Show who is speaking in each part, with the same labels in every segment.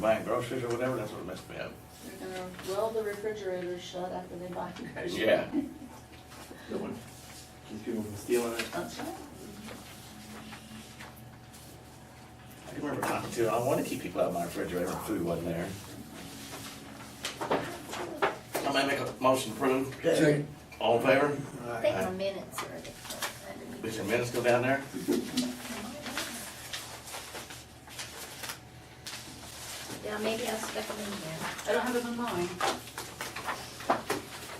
Speaker 1: buying groceries or whatever, that's what messed me up.
Speaker 2: They're gonna weld the refrigerator shut after they buy groceries.
Speaker 1: Yeah.
Speaker 3: Good one. Keep people from stealing it.
Speaker 2: That's right.
Speaker 1: I can remember talking to, I wanted to keep people out of my refrigerator, if food wasn't there. I'm gonna make a motion to approve.
Speaker 4: Second.
Speaker 1: All in favor?
Speaker 2: Take a minute, sir. to-
Speaker 1: Does your minutes go down there?
Speaker 2: Yeah, maybe I'll stick them in here.
Speaker 5: I don't have it in mind.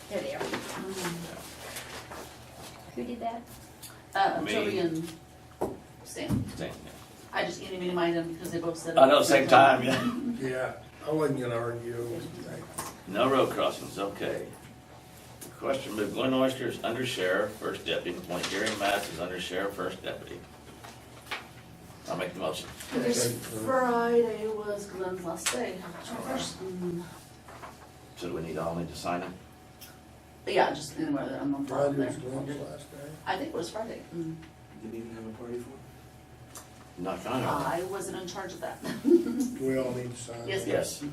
Speaker 2: There they are. Who did that?
Speaker 5: Uh,
Speaker 1: Me.
Speaker 5: Joey and Sam.
Speaker 1: Same.
Speaker 5: I just can't even mind them because they both said. it
Speaker 1: I
Speaker 5: at
Speaker 1: know, same time, yeah.
Speaker 4: Yeah, I wasn't gonna argue.
Speaker 1: No road crossings, okay. Question, move Glenn Oyster is under sheriff, first deputy, appoint Gary Matz as under sheriff, first deputy. I'll make the motion.
Speaker 5: This Friday was Glenn's last day.
Speaker 1: Alright.
Speaker 5: Mm,
Speaker 1: So do we need, all need to sign it?
Speaker 5: but Yeah, just anywhere that I'm on top of
Speaker 4: Friday
Speaker 5: there.
Speaker 4: was Glenn's last day.
Speaker 5: I think it was Friday. Mm.
Speaker 3: Didn't even have a party for
Speaker 1: Knock on it.
Speaker 5: I wasn't in charge of that.
Speaker 4: Do we all need to sign?
Speaker 5: Yes. Mm.
Speaker 1: Yes.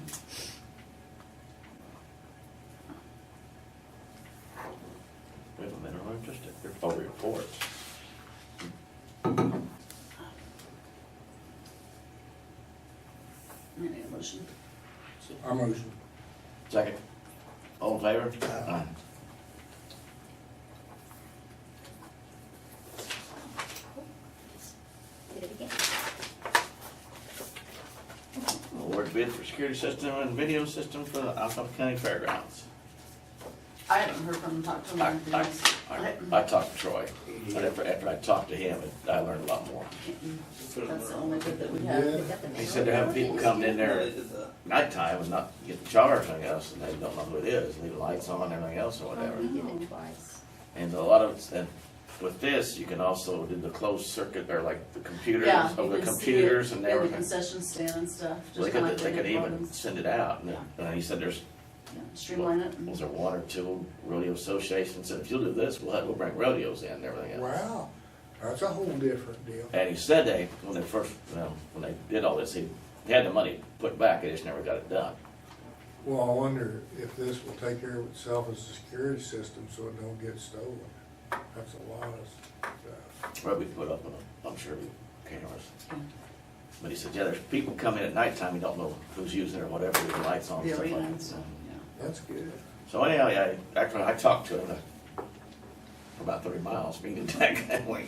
Speaker 1: Wait a minute, I'm just, oh, report.
Speaker 5: Any motion?
Speaker 4: Our motion.
Speaker 1: Second. All in favor?
Speaker 4: Aye.
Speaker 2: Did it again.
Speaker 1: Award bid for security system and video system for the Alphaba County Fairgrounds.
Speaker 5: I haven't heard from him, talked to him. or
Speaker 1: I,
Speaker 5: anything
Speaker 1: I,
Speaker 5: else.
Speaker 1: I,
Speaker 5: haven't-
Speaker 1: I talked to Troy, but after, after I talked to him, I learned a lot more.
Speaker 5: Mm-mm.
Speaker 3: it.
Speaker 5: That's the only bit that we have.
Speaker 2: They got the
Speaker 1: They
Speaker 2: mail.
Speaker 1: said they're having people come in
Speaker 3: No, they
Speaker 1: there
Speaker 3: did that.
Speaker 1: nighttime and not get charged, I guess, and they don't know who it is, leave the lights on and everything else or whatever.
Speaker 2: We
Speaker 5: Um,
Speaker 2: did
Speaker 5: Mm-hmm.
Speaker 2: it twice.
Speaker 1: And a lot of, it's- and with this, you can also do the closed circuit, or like the computers,
Speaker 5: Yeah, you
Speaker 1: over the
Speaker 5: can see it
Speaker 1: computers and
Speaker 5: in the
Speaker 1: everything.
Speaker 5: concession stand and stuff.
Speaker 1: So They
Speaker 5: just kinda
Speaker 1: could,
Speaker 5: like
Speaker 1: they could
Speaker 5: did
Speaker 1: even
Speaker 5: Robin's.
Speaker 1: send it out, and,
Speaker 5: Yeah.
Speaker 1: and he said there's,
Speaker 5: Yeah, Streamline it. and-
Speaker 1: was there one or two rodeo associations, said if you'll do this, we'll, have- we'll bring rodeos in and everything else.
Speaker 4: Wow, that's a whole different deal.
Speaker 1: And he said they, when they first, you know, when they did all this, he, they had the money put back, they just never got it done.
Speaker 4: Well, I wonder if this will take care of itself as a security system so it don't get stolen. That's a lot of stuff.
Speaker 1: Or we put up, a- I'm sure, cameras. But he said, yeah, there's people come in at nighttime, you don't know who's using it or whatever, with the lights on and
Speaker 5: The
Speaker 1: stuff
Speaker 5: arena
Speaker 1: like
Speaker 5: and
Speaker 1: that.
Speaker 5: stuff, yeah.
Speaker 4: That's good.
Speaker 1: So anyhow, yeah, actually, I talked to him uh, for about thirty miles, being attacked that way.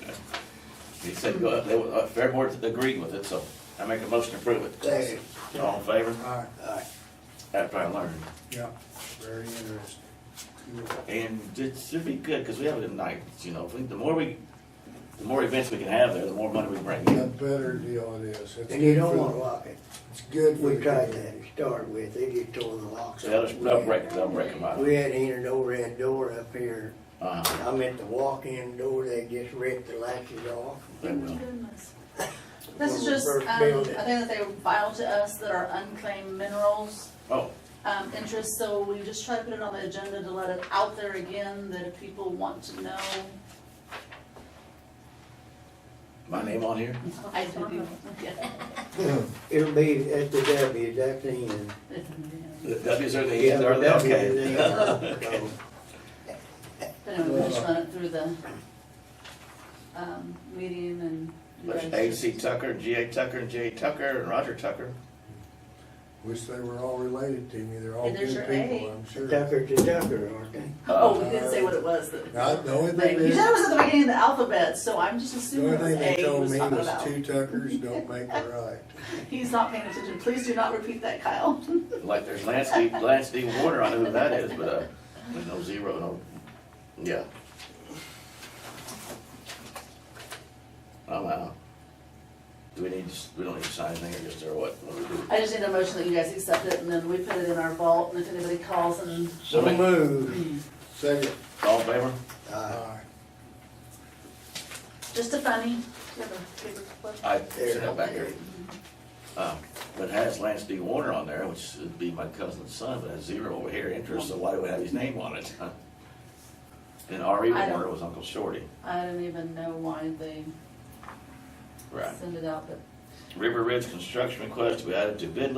Speaker 1: He said, go up, they, were- uh, Fair Board agreed with it, so I make a motion to approve it.
Speaker 4: Second.
Speaker 1: All in favor?
Speaker 4: Aye,
Speaker 1: After I learned.
Speaker 4: yeah, very interesting. Cool.
Speaker 1: And it should be good, because we have it at night, you know, if we- the more we, the more events we can have there, the more money we bring
Speaker 4: A
Speaker 1: in.
Speaker 4: better deal it is. It's
Speaker 6: And you
Speaker 4: good
Speaker 6: don't
Speaker 4: for
Speaker 6: wanna
Speaker 4: the-
Speaker 6: lock it.
Speaker 4: It's good for
Speaker 6: We
Speaker 4: the
Speaker 6: tried
Speaker 4: community.
Speaker 6: that to start with, they just tore the locks
Speaker 1: They'll just,
Speaker 6: off.
Speaker 1: they'll break, they'll break them out.
Speaker 6: We had in an overhead door up here,
Speaker 1: Uh,
Speaker 6: I meant the walk-in door, they just ripped the latches off.
Speaker 1: they will.
Speaker 5: This is just,
Speaker 6: When
Speaker 5: um,
Speaker 6: we
Speaker 5: I think
Speaker 6: first built it.
Speaker 5: that they filed to us that are unclaimed minerals,
Speaker 1: Oh,
Speaker 5: um, interest, so we just try to put it on the agenda to let it out there again, that if people want to know.
Speaker 1: my name on here?
Speaker 5: I do, yeah.
Speaker 6: It'll be at the W, that's the end.
Speaker 1: The W's are the
Speaker 6: Yeah,
Speaker 1: E's,
Speaker 6: the
Speaker 1: are they?
Speaker 6: W is the
Speaker 1: Okay.
Speaker 6: end.
Speaker 1: Okay.
Speaker 5: But anyway, we just run it through the, um, meeting and. you
Speaker 1: There's
Speaker 5: guys
Speaker 1: A.C.
Speaker 5: just-
Speaker 1: Tucker, and G.A. Tucker, and J.A. Tucker, and Roger Tucker.
Speaker 4: Wish they were all related to me, they're all
Speaker 5: And
Speaker 4: good
Speaker 5: there's your
Speaker 4: people,
Speaker 5: A.
Speaker 4: I'm sure.
Speaker 6: Tucker to Tucker, aren't they?
Speaker 5: Oh, we didn't say what it was that.
Speaker 4: Now, the only
Speaker 5: Like,
Speaker 4: thing
Speaker 5: You said
Speaker 4: is,
Speaker 5: it was at the beginning of the alphabet, so I'm just
Speaker 4: the
Speaker 5: assuming
Speaker 4: only
Speaker 5: it was
Speaker 4: thing they
Speaker 5: A he
Speaker 4: told
Speaker 5: was
Speaker 4: me
Speaker 5: talking
Speaker 4: was
Speaker 5: about.
Speaker 4: two Tuckers don't make a right.
Speaker 5: He's not paying attention. Please do not repeat that, Kyle.
Speaker 1: Uh, Like there's Lance D. Lance D. Warner, I know who that is, but uh, there's no zero, no, yeah. I'm out. Oh, Do we need, to s- we don't need to sign anything or just, or what? What do we do?
Speaker 5: I just need a motion that you guys accept it, and then we put it in our vault, and if anybody calls and,
Speaker 6: So
Speaker 1: Wait.
Speaker 6: move.
Speaker 4: Second,
Speaker 1: All in favor?
Speaker 6: Uh,
Speaker 4: aye.
Speaker 5: just a funny. Do you have a paper clip?
Speaker 1: I sent
Speaker 6: There.
Speaker 1: that back here. Um, But it has Lance D. Warner on there, which would be my cousin's son, but has zero over here interest, so why do we have his name on it? And R.E.
Speaker 5: I don't-
Speaker 1: Warner was Uncle Shorty.
Speaker 5: I don't even know why they
Speaker 1: Right.
Speaker 5: send it out, but
Speaker 1: River Ridge construction request to be added to bid